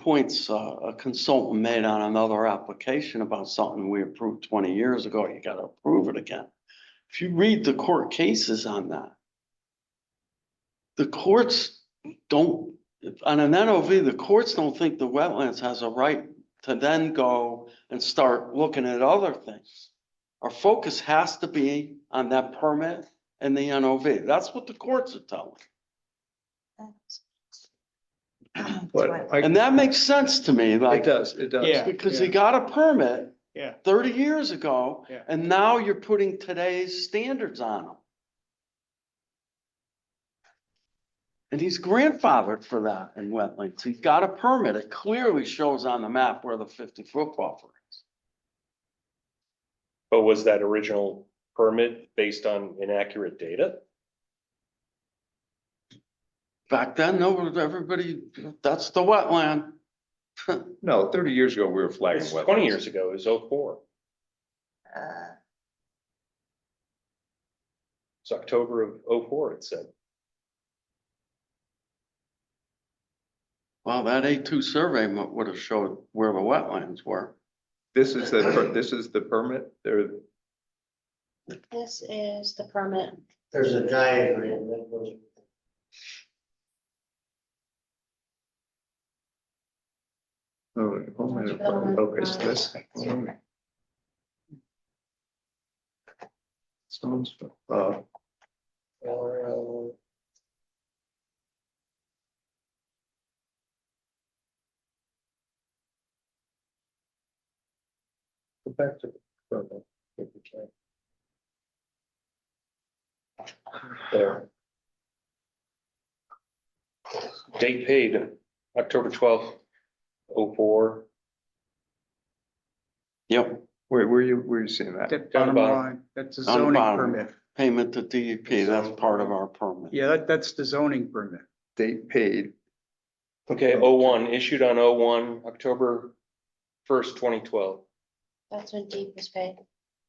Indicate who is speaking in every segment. Speaker 1: points uh, a consultant made on another application about something we approved twenty years ago, you gotta approve it again. If you read the court cases on that, the courts don't, on an NOV, the courts don't think the wetlands has a right to then go and start looking at other things. Our focus has to be on that permit and the NOV. That's what the courts are telling.
Speaker 2: But I,
Speaker 1: And that makes sense to me,
Speaker 2: it
Speaker 1: like,
Speaker 2: does, it does.
Speaker 3: Yeah.
Speaker 1: because you got a permit
Speaker 3: Yeah,
Speaker 1: thirty years ago,
Speaker 3: Yeah.
Speaker 1: and now you're putting today's standards on them. And he's grandfathered for that in wetlands. He's got a permit. It clearly shows on the map where the fifty-foot buffer is.
Speaker 4: But was that original permit based on inaccurate data?
Speaker 1: Back then, no, everybody, that's the wetland.
Speaker 2: No, thirty years ago, we were flagging
Speaker 4: It's
Speaker 2: wetlands.
Speaker 4: twenty years ago, it was oh four,
Speaker 5: uh,
Speaker 4: it's October of oh four, it said.
Speaker 1: Well, that A two survey would have showed where the wetlands were.
Speaker 2: This is the, per- this is the permit, there,
Speaker 5: This is the permit.
Speaker 6: There's a diagram that goes.
Speaker 2: oh, oh, my- oh, it's this. Stones, uh,
Speaker 6: or,
Speaker 2: go back to. the permit, if you can.
Speaker 4: There. Date paid, October twelfth, oh four,
Speaker 1: Yep,
Speaker 2: Where, where you, where you seeing that?
Speaker 7: That
Speaker 4: Down the
Speaker 7: bottom
Speaker 4: bottom.
Speaker 7: line, that's a
Speaker 1: Down the
Speaker 7: zoning
Speaker 1: bottom.
Speaker 7: permit.
Speaker 1: payment to DEP, that's part of our permit.
Speaker 7: Yeah, that, that's the zoning permit.
Speaker 2: Date paid,
Speaker 4: okay, oh one, issued on oh one, October first, twenty twelve.
Speaker 5: That's when deep was paid.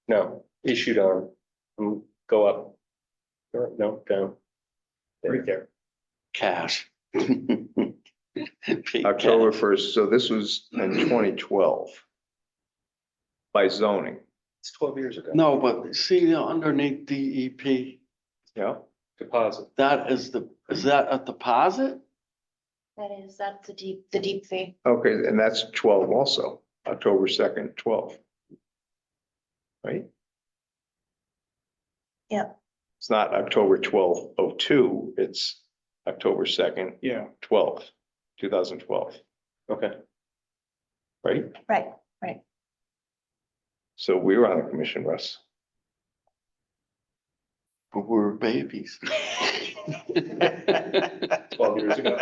Speaker 4: No, issued on, um, go up. Or, No, down. Right there.
Speaker 1: Cash.
Speaker 2: October first, so this was in twenty twelve. By zoning,
Speaker 4: It's twelve years ago.
Speaker 1: No, but see underneath DEP,
Speaker 2: yeah,
Speaker 4: Deposit.
Speaker 1: that is the, is that a deposit?
Speaker 5: That is, that's the deep, the deep fee.
Speaker 2: okay, and that's twelve also, October second, twelve. Right?
Speaker 5: Yep.
Speaker 2: It's not October twelve oh two, it's October second,
Speaker 7: Yeah.
Speaker 2: twelve, two thousand twelve,
Speaker 4: Okay.
Speaker 2: right?
Speaker 5: Right.
Speaker 2: So we were on the commission, Russ.
Speaker 1: But we're babies.
Speaker 4: Twelve years ago.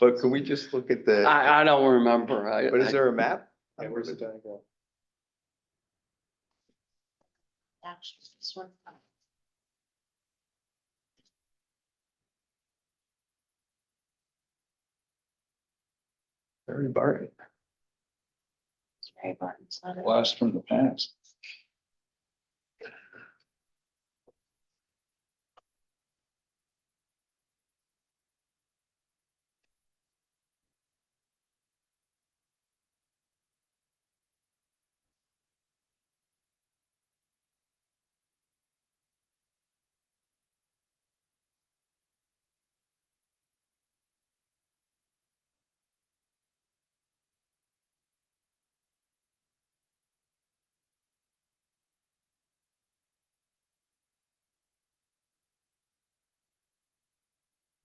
Speaker 2: But can we just look at the,
Speaker 1: I, I don't remember. I,
Speaker 2: but is
Speaker 1: I-
Speaker 2: there a map?
Speaker 4: Yeah, where's the diagram?
Speaker 5: Actually, this one.
Speaker 2: Very Barton.
Speaker 5: It's very important. It's not a-
Speaker 7: Blast from the past.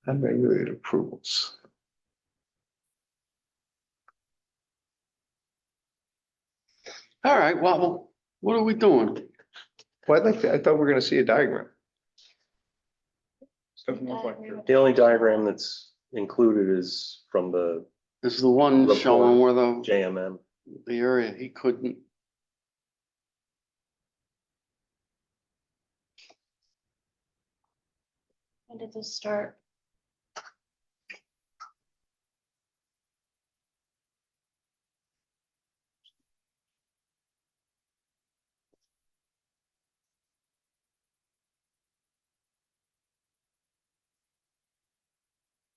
Speaker 2: Unregulated approvals.
Speaker 1: All right, well, what are we doing?
Speaker 2: Well, I'd like to, I thought we were gonna see a diagram.
Speaker 5: Uh,
Speaker 4: The only diagram that's included is from the
Speaker 1: Is the one
Speaker 4: Report.
Speaker 1: showing where the,
Speaker 4: JMM.
Speaker 1: the area he couldn't.
Speaker 5: When did this start?